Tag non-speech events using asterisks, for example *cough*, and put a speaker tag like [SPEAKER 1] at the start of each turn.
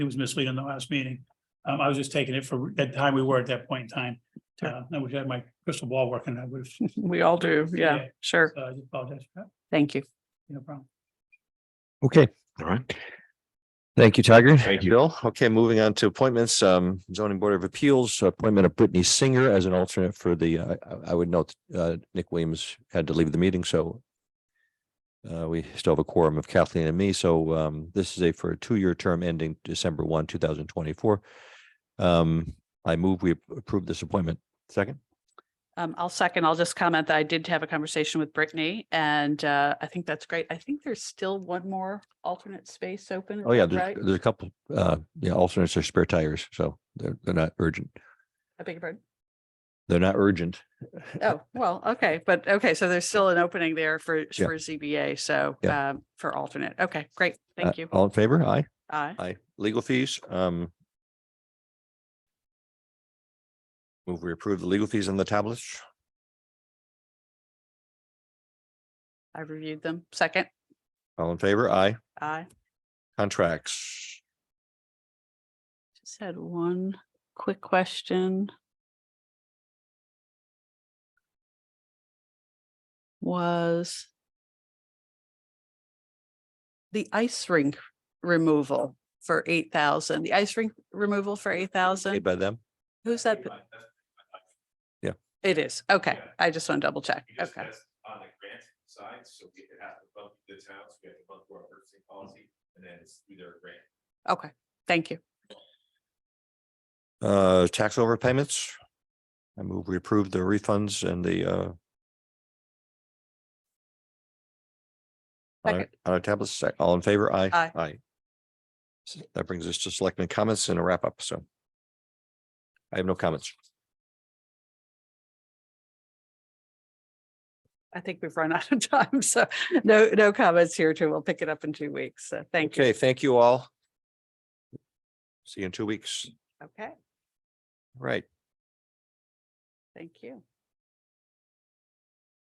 [SPEAKER 1] it was misleading the last meeting. Um, I was just taking it for that time we were at that point in time. Uh, I wish I had my crystal ball working. I would have,
[SPEAKER 2] We all do. Yeah,
[SPEAKER 1] Yeah.
[SPEAKER 2] sure.
[SPEAKER 1] uh, I just apologize for that.
[SPEAKER 2] Thank you.
[SPEAKER 1] No problem.
[SPEAKER 3] Okay,
[SPEAKER 4] All right.
[SPEAKER 3] thank you, Tiger.
[SPEAKER 4] Thank you.
[SPEAKER 3] Bill, okay, moving on to appointments, um, zoning board of appeals, appointment of Brittany Singer as an alternate for the, I, I- I would note, uh, Nick Williams had to leave the meeting, so uh, we still have a quorum of Kathleen and me, so, um, this is a for a two-year term ending December one, two thousand twenty-four. Um, I move we approve this appointment. Second?
[SPEAKER 2] Um, I'll second. I'll just comment that I did have a conversation with Brittany and uh, I think that's great. I think there's still one more alternate space open. is
[SPEAKER 3] Oh, yeah,
[SPEAKER 2] that
[SPEAKER 3] there's,
[SPEAKER 2] Right?
[SPEAKER 3] there's a couple, uh, yeah, alternates are spare tires, so they're, they're not urgent.
[SPEAKER 2] I beg your pardon.
[SPEAKER 3] They're not urgent.
[SPEAKER 2] Oh, well, okay, but okay, so there's still an opening there for, for ZBA. So
[SPEAKER 3] Yeah.
[SPEAKER 2] um, for alternate. Okay, great.
[SPEAKER 3] Uh,
[SPEAKER 2] Thank you.
[SPEAKER 3] All in favor? Aye.
[SPEAKER 2] Aye.
[SPEAKER 3] Aye. Legal fees, um. Move we approve the legal fees on the tablets.
[SPEAKER 2] I reviewed them. Second.
[SPEAKER 3] All in favor? Aye.
[SPEAKER 2] Aye.
[SPEAKER 3] Contracts.
[SPEAKER 2] Just had one quick question. Was the ice rink removal for eight thousand, the ice rink removal for eight
[SPEAKER 3] Paid
[SPEAKER 2] thousand?
[SPEAKER 3] by them.
[SPEAKER 2] Who's that?
[SPEAKER 3] Yeah.
[SPEAKER 2] It is. Okay.
[SPEAKER 5] Yeah.
[SPEAKER 2] I just want to double check.
[SPEAKER 5] We just
[SPEAKER 2] Okay.
[SPEAKER 5] test on the grant side, so we could have to bump the towns, we have to bump our purchasing policy, and then it's through their grant.
[SPEAKER 2] Okay. Thank you.
[SPEAKER 3] Uh, tax overpayments. I move we approve the refunds and the, uh. On our-
[SPEAKER 2] Second.
[SPEAKER 3] on our tablets, sec- all in favor? Aye.
[SPEAKER 2] Aye.
[SPEAKER 3] Aye. So That brings us to selectmen comments and a wrap up, so. I have no comments.
[SPEAKER 2] I think we've run *laughs* out of time. So no, no comments here too. We'll pick it up in two weeks. So thank you.
[SPEAKER 3] Okay, thank you all. See you in two weeks.
[SPEAKER 2] Okay.
[SPEAKER 3] Right.
[SPEAKER 2] Thank you.